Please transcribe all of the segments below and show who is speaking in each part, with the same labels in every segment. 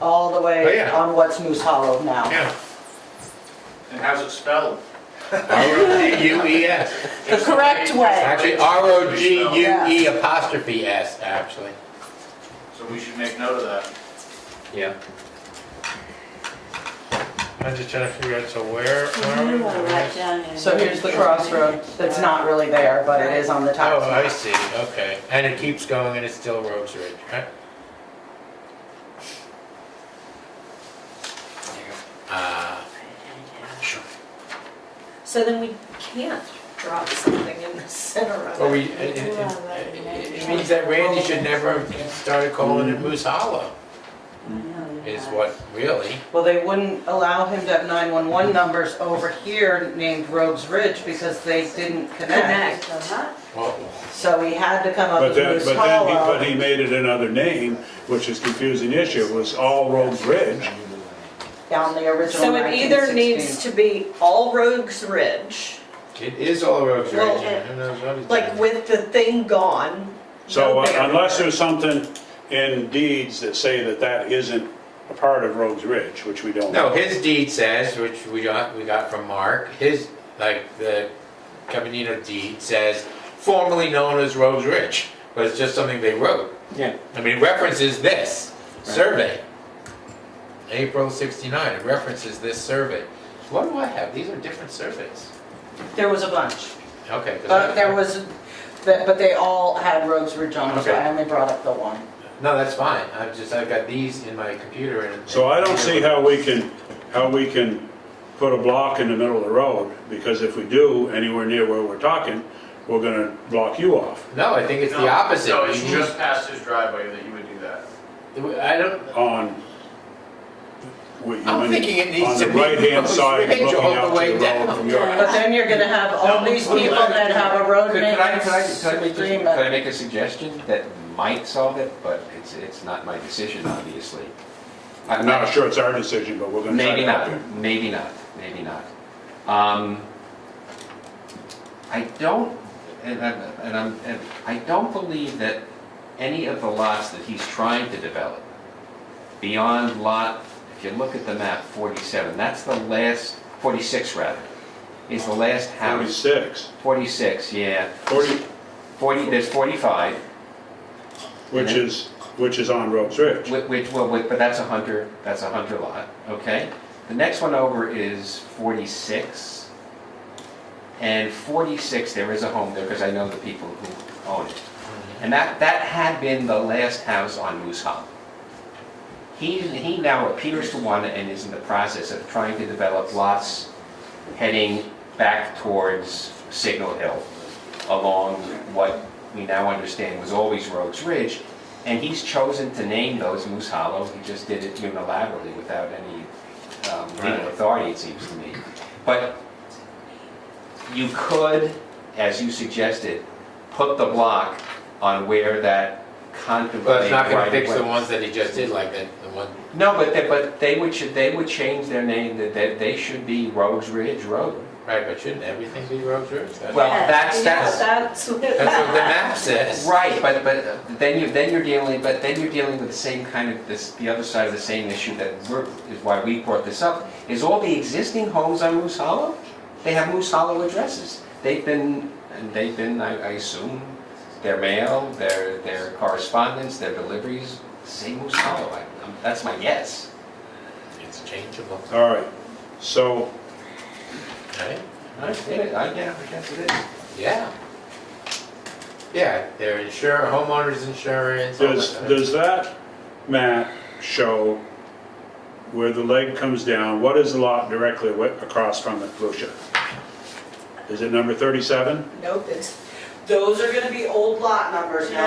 Speaker 1: all the
Speaker 2: Oh,
Speaker 1: way
Speaker 2: yeah.
Speaker 1: on what's Moose Hollow now.
Speaker 2: Yeah.
Speaker 3: And how's it spelled?
Speaker 2: R-O-G-U-E-S.
Speaker 4: The correct way.
Speaker 2: E Actually, R-O-G-U-E E apostrophe S, actually.
Speaker 3: So we should make note of that.
Speaker 2: Yeah.
Speaker 5: I'm just trying to figure out, so where, where are we?
Speaker 1: So here's the crossroad that's not really there, but it is on the
Speaker 2: Oh,
Speaker 1: tax
Speaker 2: I
Speaker 1: map.
Speaker 2: see, okay. And it keeps going and it's still Rogues Ridge, right? Uh, sure.
Speaker 6: So then we can't drop something in the center of it.
Speaker 2: Well, we, it, it- it- it means that Randy should never have started calling it Moose Hollow, is what, really?
Speaker 1: Well, they wouldn't allow him to have 911 numbers over here named Rogues Ridge because they didn't connect.
Speaker 6: Connect.
Speaker 2: Whoa.
Speaker 1: So he had to come up
Speaker 7: But
Speaker 1: with
Speaker 7: then,
Speaker 1: Moose
Speaker 7: but then, he- but
Speaker 1: Hollow.
Speaker 7: he made it another name, which is confusing issue, was All Roads Ridge.
Speaker 1: down the original
Speaker 6: So it either needs
Speaker 1: 1916.
Speaker 6: to be all Rogues Ridge,
Speaker 2: It is all Rogues Ridge,
Speaker 6: Well,
Speaker 2: and who knows what it's.
Speaker 6: like with the thing gone.
Speaker 7: So
Speaker 6: no
Speaker 7: uh,
Speaker 6: bear.
Speaker 7: unless there's something in deeds that say that that isn't a part of Roads Ridge, which we don't.
Speaker 2: No,
Speaker 7: know.
Speaker 2: his deed says, which we got, we got from Mark, his, like, the Caminito deed says, formerly known as Rogues Ridge, but it's just something they wrote.
Speaker 8: Yeah.
Speaker 2: I mean, references this survey, April sixty-nine, it references this survey. What do I have? These are different surveys.
Speaker 1: There was a bunch,
Speaker 2: Okay. 'cause I-
Speaker 1: but Uh, there was, but but they all had Rogues Ridge on them, so I
Speaker 2: Okay.
Speaker 1: only brought up the one.
Speaker 2: No, that's fine, I've just, I've got these in my computer and.
Speaker 7: So I don't see how we can, how we can put a block in the middle of the road, because if we do, anywhere near where we're talking, we're gonna block you off.
Speaker 2: No, I think it's the
Speaker 3: No,
Speaker 2: opposite.
Speaker 3: No,
Speaker 2: We
Speaker 3: it's
Speaker 2: need-
Speaker 3: just past his driveway that you would do that.
Speaker 2: I don't,
Speaker 7: on. what you-
Speaker 2: I'm thinking it needs to
Speaker 7: On
Speaker 2: be
Speaker 7: the right-hand side,
Speaker 2: Ridge
Speaker 7: looking
Speaker 2: all the
Speaker 7: out
Speaker 2: way
Speaker 7: to the road
Speaker 2: down.
Speaker 7: from your
Speaker 1: But then you're gonna have all
Speaker 3: No,
Speaker 1: these
Speaker 3: we'll
Speaker 1: people
Speaker 3: let it
Speaker 1: that
Speaker 3: go.
Speaker 1: have a road
Speaker 8: Could could I, could I,
Speaker 1: maintenance
Speaker 8: could I make, a- could I
Speaker 1: agreement.
Speaker 8: make a suggestion that might solve it, but it's, it's not my decision, obviously?
Speaker 7: I'm not sure it's our decision, but we're gonna try
Speaker 8: Maybe
Speaker 7: to
Speaker 8: not,
Speaker 7: help you.
Speaker 8: maybe not, maybe not. Um, I don't, and I'm, and I'm, and I don't believe that any of the lots that he's trying to develop beyond lot, if you look at the map, 47, that's the last, 46 rather, is the last house.
Speaker 7: Forty-six,
Speaker 8: 46, yeah.
Speaker 7: forty,
Speaker 8: 40, there's 45,
Speaker 7: which is, which is on Ropes Ridge.
Speaker 8: Which, which, well, which- but that's a hunter, that's a hunter lot, okay? The next one over is 46. And 46, there is a home there, because I know the people who own it. And that, that had been the last house on Moose Hollow. He, he now appears to want and is in the process of trying to develop lots heading back towards Signal Hill, along what we now understand was always Rogues Ridge, and he's chosen to name those Moose Hollow, he just did it unilaterally without any um, legal authority, it seems to me. But you could, as you suggested, put the block on where that contemplated
Speaker 2: But it's not
Speaker 8: right
Speaker 2: gonna
Speaker 8: of
Speaker 2: fix the
Speaker 8: way-
Speaker 2: ones that he just did, like that, the one,
Speaker 8: No, but they, but they would, should, they would change their name, that they, they should be Rogues Ridge Road.
Speaker 2: right, but shouldn't everything be road Ridge? That's-
Speaker 8: Well,
Speaker 6: Yeah,
Speaker 8: that's- that's-
Speaker 6: That's what
Speaker 2: That's what the map says.
Speaker 8: Right, but, but then you, then you're dealing, but then you're dealing with the same kind of, this, the other side of the same issue that we're, is why we brought this up, is all the existing homes on Moose Hollow, they have Moose Hollow addresses. They've been, and they've been, I, I assume, their mail, their, their correspondence, their deliveries, say Moose Hollow, I, I'm- um, that's my guess.
Speaker 2: It's changeable,
Speaker 7: All right, so
Speaker 2: right?
Speaker 8: I get it, I, yeah, I guess it is.
Speaker 2: Yeah. Yeah, their insurance, homeowners insurance. all
Speaker 7: does,
Speaker 2: that.
Speaker 7: does that map show where the leg comes down? What is the lot directly wa- across from it, Lucia? Is it number thirty-seven?
Speaker 6: Nope, it's,
Speaker 1: Those are gonna be old lot numbers
Speaker 4: these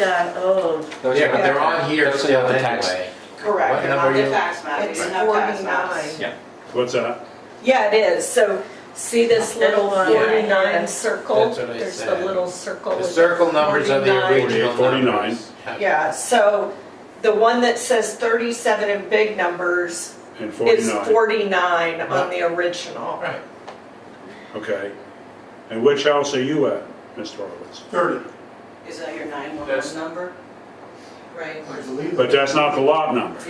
Speaker 4: are old.
Speaker 8: Those
Speaker 2: Yeah,
Speaker 8: are-
Speaker 2: but they're on here
Speaker 8: those are
Speaker 2: still
Speaker 8: the tax-
Speaker 2: anyway. What
Speaker 1: Correct,
Speaker 2: they're on number the are you-
Speaker 1: tax
Speaker 6: it's 49.
Speaker 7: What's that?
Speaker 6: Yeah, it is. So see this little
Speaker 4: That's one.
Speaker 6: 49 circle?
Speaker 2: That's what I
Speaker 6: There's the
Speaker 2: said.
Speaker 6: little circle.
Speaker 2: The circle numbers are the
Speaker 6: 49.
Speaker 2: original
Speaker 7: 49.
Speaker 2: numbers.
Speaker 6: Yeah, so the one that says 37 in big numbers
Speaker 7: And
Speaker 6: is
Speaker 7: forty-nine,
Speaker 6: 49 on the original.
Speaker 2: Right,
Speaker 7: okay. And which house are you at, Mr. Horowitz?
Speaker 3: Thirty.
Speaker 1: Is that your
Speaker 3: That's-
Speaker 1: number? Right.
Speaker 7: But that's not the lot number.